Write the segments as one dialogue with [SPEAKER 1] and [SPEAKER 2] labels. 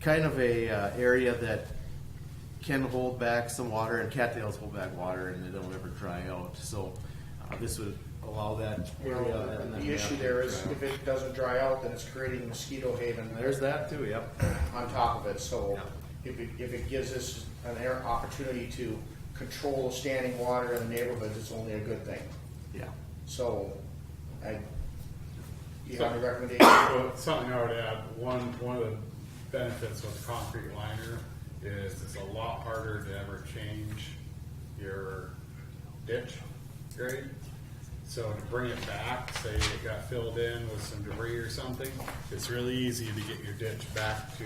[SPEAKER 1] kind of a uh, area that can hold back some water, and cattails hold back water, and they don't ever dry out. So uh, this would allow that
[SPEAKER 2] You
[SPEAKER 1] area.
[SPEAKER 2] know,
[SPEAKER 1] and then
[SPEAKER 2] uh, the issue there is
[SPEAKER 1] uh,
[SPEAKER 2] if it doesn't dry out, then it's creating mosquito haven
[SPEAKER 1] There's that too, yep.
[SPEAKER 2] on top of it, so
[SPEAKER 1] Yeah.
[SPEAKER 2] if it, if it gives us an air opportunity to control standing water in the neighborhoods, it's only a good thing.
[SPEAKER 1] Yeah.
[SPEAKER 2] So, I, you have a recommendation?
[SPEAKER 3] Well, something I would add, one, one of the benefits with concrete liner is it's a lot harder to ever change your ditch grade. So to bring it back, say it got filled in with some debris or something, it's really easy to get your ditch back to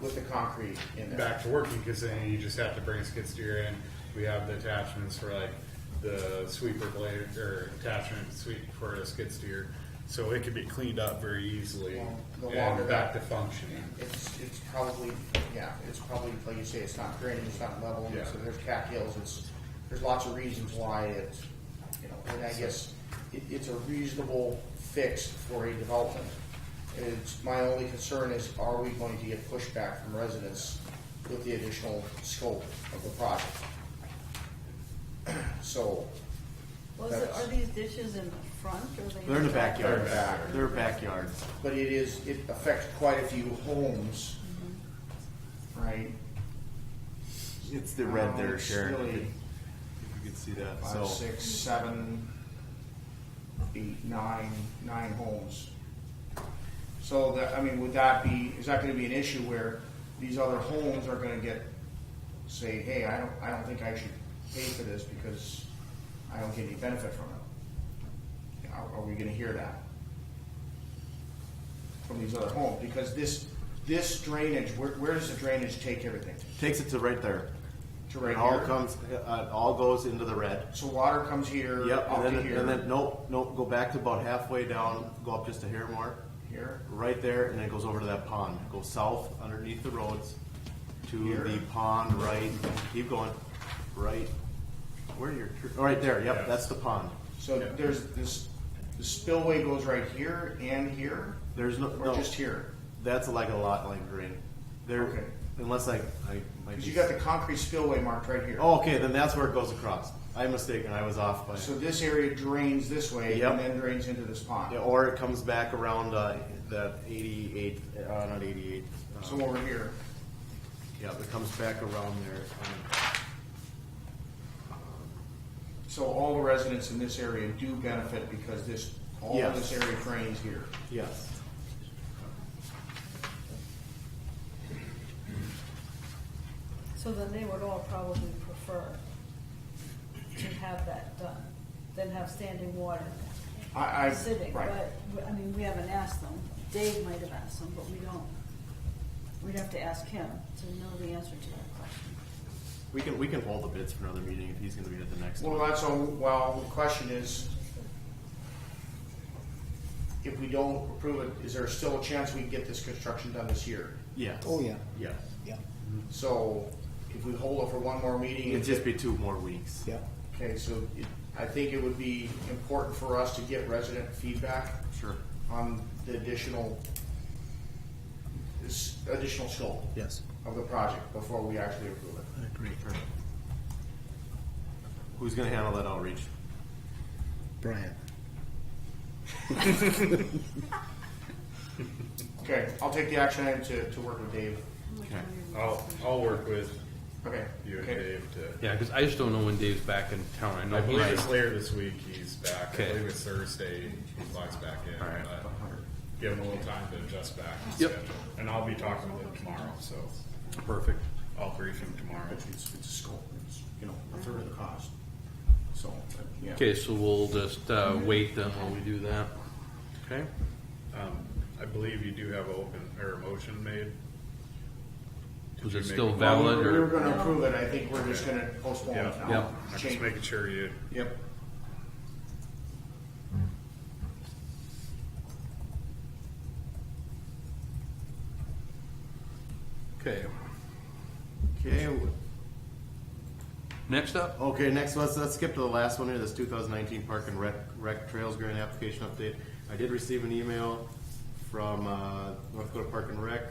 [SPEAKER 2] With the concrete in there.
[SPEAKER 3] back to working because then you just have to bring a skid steer in. We have the attachments for like the sweeper blade or attachment sweep for a skid steer, so it could be cleaned up very easily
[SPEAKER 2] Well, the longer
[SPEAKER 3] and back to functioning.
[SPEAKER 2] It's, it's probably, yeah, it's probably, like you say, it's not draining, it's not leveling,
[SPEAKER 3] Yeah.
[SPEAKER 2] so there's cattails, it's, there's lots of reasons why it's, you know, and I guess it, it's a reasonable fix for a development. It's, my only concern is, are we going to get pushback from residents with the additional scope of the project? So,
[SPEAKER 4] Was it, are these dishes in the front or they?
[SPEAKER 1] They're in the backyard.
[SPEAKER 2] They're back.
[SPEAKER 1] They're backyards.
[SPEAKER 2] but it is, it affects quite a few homes, right?
[SPEAKER 1] It's the red
[SPEAKER 2] Um,
[SPEAKER 1] there,
[SPEAKER 2] it's
[SPEAKER 1] Sharon. If
[SPEAKER 2] really-
[SPEAKER 1] you could see that.
[SPEAKER 2] five,
[SPEAKER 1] so
[SPEAKER 2] six, seven, eight, nine, nine homes. So that, I mean, would that be, is that gonna be an issue where these other homes are gonna get, say, hey, I don't, I don't think I should pay for this because I don't get any benefit from it? Are, are we gonna hear that? From these other homes, because this, this drainage, where, where does the drainage take everything?
[SPEAKER 1] takes it to right there.
[SPEAKER 2] To right
[SPEAKER 1] it all
[SPEAKER 2] here?
[SPEAKER 1] comes. Uh, it all goes into the red.
[SPEAKER 2] So water comes here,
[SPEAKER 1] Yep,
[SPEAKER 2] up
[SPEAKER 1] and
[SPEAKER 2] to
[SPEAKER 1] then,
[SPEAKER 2] here.
[SPEAKER 1] and then, nope, nope, go back to about halfway down, go up just a hair more,
[SPEAKER 2] Here,
[SPEAKER 1] right there, and then it goes over to that pond. Go south underneath the roads to
[SPEAKER 2] Here.
[SPEAKER 1] the pond, right, keep going, right, where are your, tr- oh, right there,
[SPEAKER 3] Yeah.
[SPEAKER 1] yep, that's the pond.
[SPEAKER 2] so
[SPEAKER 3] Yeah.
[SPEAKER 2] there's this, the spillway goes right here and here,
[SPEAKER 1] There's no,
[SPEAKER 2] or
[SPEAKER 1] no,
[SPEAKER 2] just here?
[SPEAKER 1] that's like a lot like green.
[SPEAKER 2] Okay.
[SPEAKER 1] There, unless I, I might
[SPEAKER 2] Cause
[SPEAKER 1] be.
[SPEAKER 2] you got the concrete spillway marked right here.
[SPEAKER 1] Oh, okay, then that's where it goes across. I'm mistaken, I was off by,
[SPEAKER 2] So this area drains this way
[SPEAKER 1] Yep.
[SPEAKER 2] and then drains into this pond.
[SPEAKER 1] Yeah, or it comes back around, uh, that eighty-eight, uh, not eighty-eight. uh,
[SPEAKER 2] So over here,
[SPEAKER 1] Yeah, it comes back around there. um,
[SPEAKER 2] so all the residents in this area do benefit because this, all of
[SPEAKER 1] Yes.
[SPEAKER 2] this area drains here.
[SPEAKER 1] Yes.
[SPEAKER 4] So then they would all probably prefer to have that done than have standing water
[SPEAKER 2] I, I,
[SPEAKER 4] sitting.
[SPEAKER 2] right,
[SPEAKER 4] But, we- I mean, we haven't asked them. Dave might have asked them, but we don't. We'd have to ask him to know the answer to that question.
[SPEAKER 1] We can, we can hold the bids for another meeting if he's gonna be at the next
[SPEAKER 2] well,
[SPEAKER 1] one.
[SPEAKER 2] that's, all- well, the question is, if we don't approve it, is there still a chance we can get this construction done this year?
[SPEAKER 1] Yes.
[SPEAKER 5] Oh, yeah.
[SPEAKER 1] Yes.
[SPEAKER 5] Yeah,
[SPEAKER 2] So if we hold it for one more meeting,
[SPEAKER 1] It'd just be two more weeks.
[SPEAKER 5] yeah.
[SPEAKER 2] okay, so it- I think it would be important for us to get resident feedback
[SPEAKER 1] Sure.
[SPEAKER 2] on the additional, this additional scope
[SPEAKER 5] Yes,
[SPEAKER 2] of the project before we actually approve it.
[SPEAKER 5] I agree.
[SPEAKER 1] Who's gonna handle that outreach?
[SPEAKER 5] Brian.
[SPEAKER 2] Okay, I'll take the action item to, to work with Dave.
[SPEAKER 1] Okay.
[SPEAKER 3] I'll, I'll work with
[SPEAKER 2] Okay.
[SPEAKER 3] you and
[SPEAKER 2] okay.
[SPEAKER 3] Dave to,
[SPEAKER 6] Yeah, because I just don't know when Dave's back in town. I know
[SPEAKER 3] I believe
[SPEAKER 6] he's
[SPEAKER 3] it's later this week he's back, I
[SPEAKER 6] Okay.
[SPEAKER 3] believe it's Thursday he flies back in.
[SPEAKER 1] All right.
[SPEAKER 3] but Give him a little time to adjust back his
[SPEAKER 6] Yep.
[SPEAKER 3] schedule, and I'll be talking with him tomorrow, so
[SPEAKER 6] perfect.
[SPEAKER 3] I'll brief him tomorrow.
[SPEAKER 2] It's, it's a scope, it's, you know, a third of the cost, so, uh, yeah.
[SPEAKER 6] Okay, so we'll just uh, wait then while we do that. Okay.
[SPEAKER 3] Um, I believe you do have a open, or a motion made. Did
[SPEAKER 6] Was
[SPEAKER 3] you
[SPEAKER 6] it
[SPEAKER 3] make
[SPEAKER 6] still
[SPEAKER 2] Well,
[SPEAKER 3] a-
[SPEAKER 6] valid
[SPEAKER 2] We were
[SPEAKER 6] or?
[SPEAKER 2] gonna approve it, I think we're just gonna postpone it
[SPEAKER 3] Yeah.
[SPEAKER 2] now.
[SPEAKER 3] I'm just
[SPEAKER 2] Change-
[SPEAKER 3] making sure you,
[SPEAKER 2] Yep.
[SPEAKER 6] Okay.
[SPEAKER 1] Okay, w-
[SPEAKER 6] Next up,
[SPEAKER 1] okay, next, let's, let's skip to the last one here, this two thousand nineteen Park and Rec, Rec Trails Grant Application Update. I did receive an email from, uh, North Dakota Park and Rec